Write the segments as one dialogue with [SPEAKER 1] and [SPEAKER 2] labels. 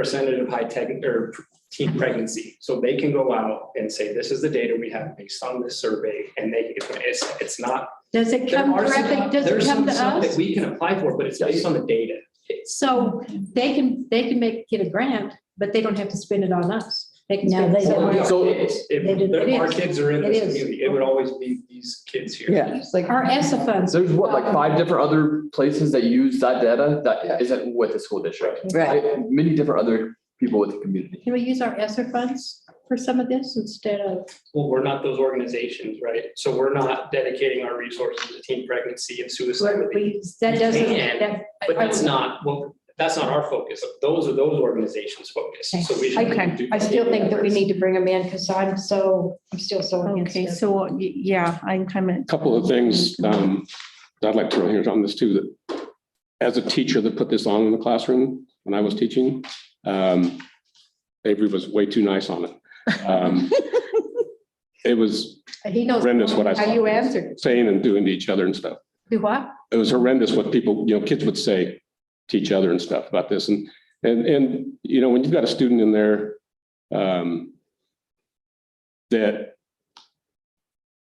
[SPEAKER 1] percentage of high tech or teen pregnancy. So they can go out and say, this is the data we have based on this survey, and they, it's, it's not.
[SPEAKER 2] Does it
[SPEAKER 1] there
[SPEAKER 2] come
[SPEAKER 1] are some-
[SPEAKER 2] directly, does
[SPEAKER 1] there's
[SPEAKER 2] it come
[SPEAKER 1] some
[SPEAKER 2] to
[SPEAKER 1] stuff That
[SPEAKER 2] us?
[SPEAKER 1] we can apply for, but it's based on the data.
[SPEAKER 2] So they can, they can make, get a grant, but they don't have to spend it on us. They can
[SPEAKER 3] No,
[SPEAKER 2] spend
[SPEAKER 3] they
[SPEAKER 2] it somewhere
[SPEAKER 3] don't.
[SPEAKER 2] else.
[SPEAKER 1] So
[SPEAKER 3] So-
[SPEAKER 1] if,
[SPEAKER 3] It is-
[SPEAKER 1] if our kids are in
[SPEAKER 3] it
[SPEAKER 1] this
[SPEAKER 3] is.
[SPEAKER 1] community, it would always be these kids here.
[SPEAKER 4] Yeah, it's like,
[SPEAKER 2] Our ESSA funds.
[SPEAKER 5] There's what, like five different other places that use that data that isn't with the school district.
[SPEAKER 3] Right.
[SPEAKER 5] I- Many different other people with the community.
[SPEAKER 2] Can we use our ESSA funds for some of this instead of,
[SPEAKER 1] Well, we're not those organizations, right? So we're not dedicating our resources to teen pregnancy and suicide.
[SPEAKER 2] where we- that doesn't, that.
[SPEAKER 1] But that's not, well, that's not our focus. Those are those organizations' focus. So we should.
[SPEAKER 3] Okay,
[SPEAKER 1] do-
[SPEAKER 3] I still think that we need to bring them in because I'm so, I'm still so against
[SPEAKER 6] Okay,
[SPEAKER 3] it.
[SPEAKER 6] so, y- yeah, I'm kind of.
[SPEAKER 7] Couple of things um, that I'd like to throw here on this too, that as a teacher that put this on in the classroom when I was teaching, um, Avery was way too nice on it. Um, It was
[SPEAKER 3] He knows.
[SPEAKER 7] horrendous what I
[SPEAKER 3] How you
[SPEAKER 7] saw.
[SPEAKER 3] answered.
[SPEAKER 7] saying and doing to each other and stuff.
[SPEAKER 3] Do what?
[SPEAKER 7] It was horrendous what people, you know, kids would say to each other and stuff about this. And, and, and, you know, when you've got a student in there um, that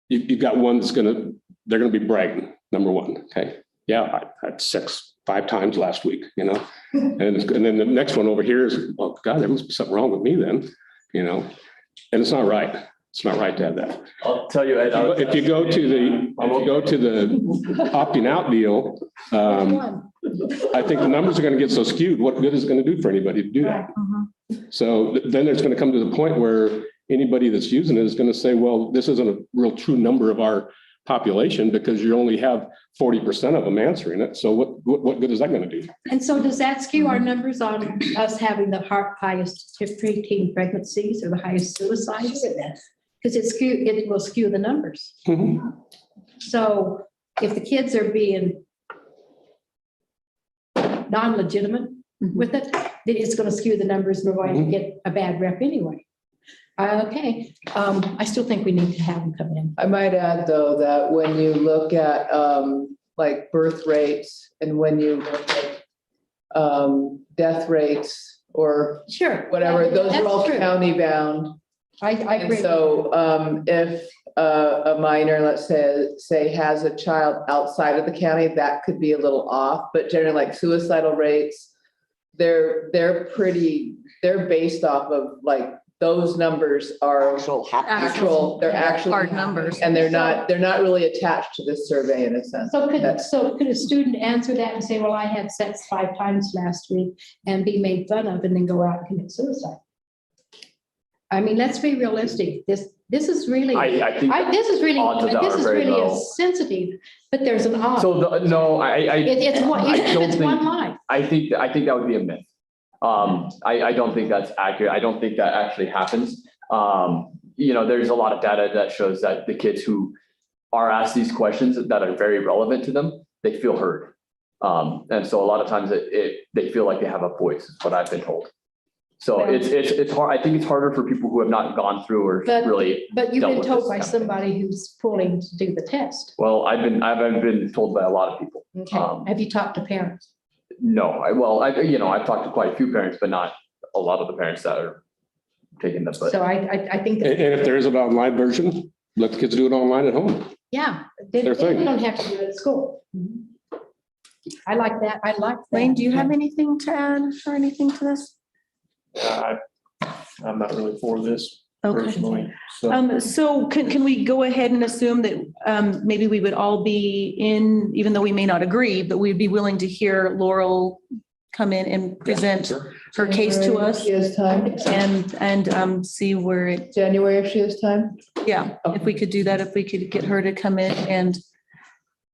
[SPEAKER 7] you, you've got one that's gonna, they're gonna be bragging, number one, okay? Yeah, I had sex five times last week, you know? And, it's- and then the next one over here is, well, God, there must be something wrong with me then, you know? And it's not right. It's not right to have that.
[SPEAKER 5] I'll tell you, Ed. I was-
[SPEAKER 7] If you go to the, if you go to the opting out deal, um,
[SPEAKER 2] One.
[SPEAKER 7] I think the numbers are gonna get so skewed, what good is it gonna do for anybody to do that?
[SPEAKER 6] Mm-hmm.
[SPEAKER 7] So th- then it's gonna come to the point where anybody that's using it is gonna say, well, this isn't a real true number of our population because you only have forty percent of them answering it. So what, what, what good is that gonna do?
[SPEAKER 2] And so does that skew our numbers on us having the har- highest preteen pregnancies or the highest suicides? Because it skew, it will skew the numbers.
[SPEAKER 7] Mhm.
[SPEAKER 2] So if the kids are being non-legitimate with it, then it's going to skew the numbers and we're going to get a bad rep anyway. Okay, um, I still think we need to have them come in.
[SPEAKER 8] I might add, though, that when you look at um, like birth rates and when you look at um, death rates or
[SPEAKER 2] Sure.
[SPEAKER 8] whatever, those are
[SPEAKER 2] That's
[SPEAKER 8] all
[SPEAKER 2] true.
[SPEAKER 8] county bound.
[SPEAKER 2] I, I
[SPEAKER 8] And
[SPEAKER 2] agree.
[SPEAKER 8] so um, if uh, a, a minor, let's say, say has a child outside of the county, that could be a little off, but generally like suicidal rates, they're, they're pretty, they're based off of like, those numbers are
[SPEAKER 3] Actual
[SPEAKER 8] actual, they're actually.
[SPEAKER 3] Hard numbers.
[SPEAKER 8] And they're not, they're not really attached to this survey in a sense.
[SPEAKER 2] So could, so could a student answer that and say, well, I had sex five times last week and be made fun of and then go out and commit suicide? I mean, let's be realistic. This, this is really, I,
[SPEAKER 5] I, I think,
[SPEAKER 2] this is really,
[SPEAKER 5] Odds of that
[SPEAKER 2] this
[SPEAKER 5] are
[SPEAKER 2] is
[SPEAKER 5] very
[SPEAKER 2] really
[SPEAKER 5] low.
[SPEAKER 2] a sensitive, but there's an odd.
[SPEAKER 5] so the, no, I, I,
[SPEAKER 2] It, it's one,
[SPEAKER 5] I don't
[SPEAKER 2] it's one
[SPEAKER 5] think-
[SPEAKER 2] life.
[SPEAKER 5] I think, I think that would be a myth. Um, I, I don't think that's accurate. I don't think that actually happens. Um, you know, there's a lot of data that shows that the kids who are asked these questions that are very relevant to them, they feel heard. Um, and so a lot of times it, it, they feel like they have a voice, is what I've been told. So it's, it's, it's hard, I think it's harder for people who have not gone through or
[SPEAKER 2] But-
[SPEAKER 5] really,
[SPEAKER 2] But you've
[SPEAKER 5] dealt
[SPEAKER 2] been
[SPEAKER 5] with
[SPEAKER 2] told
[SPEAKER 5] this
[SPEAKER 2] by
[SPEAKER 5] kind of thing.
[SPEAKER 2] somebody who's pulling to do the test.
[SPEAKER 5] well, I've been, I've, I've been told by a lot of people.
[SPEAKER 2] Okay.
[SPEAKER 5] Um,
[SPEAKER 2] Have you talked to parents?
[SPEAKER 5] No, I, well, I, you know, I've talked to quite a few parents, but not a lot of the parents that are taking this, but
[SPEAKER 2] So I, I, I think
[SPEAKER 7] And,
[SPEAKER 2] that,
[SPEAKER 7] and if there is an online version, let the kids do it online at home.
[SPEAKER 2] yeah, they,
[SPEAKER 7] Their
[SPEAKER 2] they
[SPEAKER 7] thing.
[SPEAKER 2] don't have to do it at school. I like that. I like. that.
[SPEAKER 6] Wayne, do you have anything to add or anything to this?
[SPEAKER 9] Uh, I'm not really for this
[SPEAKER 6] Okay.
[SPEAKER 9] personally, so.
[SPEAKER 6] Um, so can, can we go ahead and assume that, um, maybe we would all be in, even though we may not agree, but we'd be willing to hear Laurel come in and present her case to
[SPEAKER 8] January, if
[SPEAKER 6] us
[SPEAKER 8] She has time,
[SPEAKER 6] and, and, um, see where it,
[SPEAKER 8] January if she has time.
[SPEAKER 6] yeah, if we could do that, if we could get her to come in and,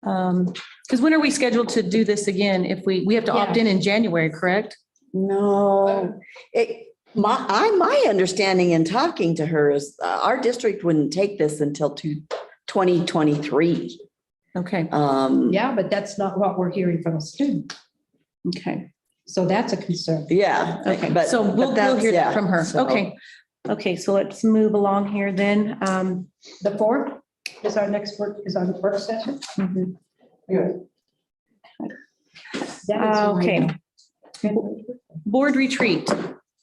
[SPEAKER 6] um, because when are we scheduled to do this again? If we, we have to opt in in January, correct?
[SPEAKER 3] No, it, my, I, my understanding in talking to her is uh, our district wouldn't take this until two, twenty twenty-three.
[SPEAKER 6] Okay,
[SPEAKER 3] Um,
[SPEAKER 2] Yeah, but that's not what we're hearing from a student.
[SPEAKER 6] okay.
[SPEAKER 2] So that's a concern.
[SPEAKER 3] yeah.
[SPEAKER 6] Okay,
[SPEAKER 3] but-
[SPEAKER 6] so
[SPEAKER 3] but
[SPEAKER 6] we'll, we'll
[SPEAKER 3] that's-
[SPEAKER 6] hear
[SPEAKER 3] yeah,
[SPEAKER 6] that from her.
[SPEAKER 3] so-
[SPEAKER 6] Okay. Okay, so let's move along here then. Um,
[SPEAKER 2] The fourth is our next work, is our work session.
[SPEAKER 6] mhm.
[SPEAKER 2] That is
[SPEAKER 6] Uh,
[SPEAKER 2] my-
[SPEAKER 6] Okay. Board retreat.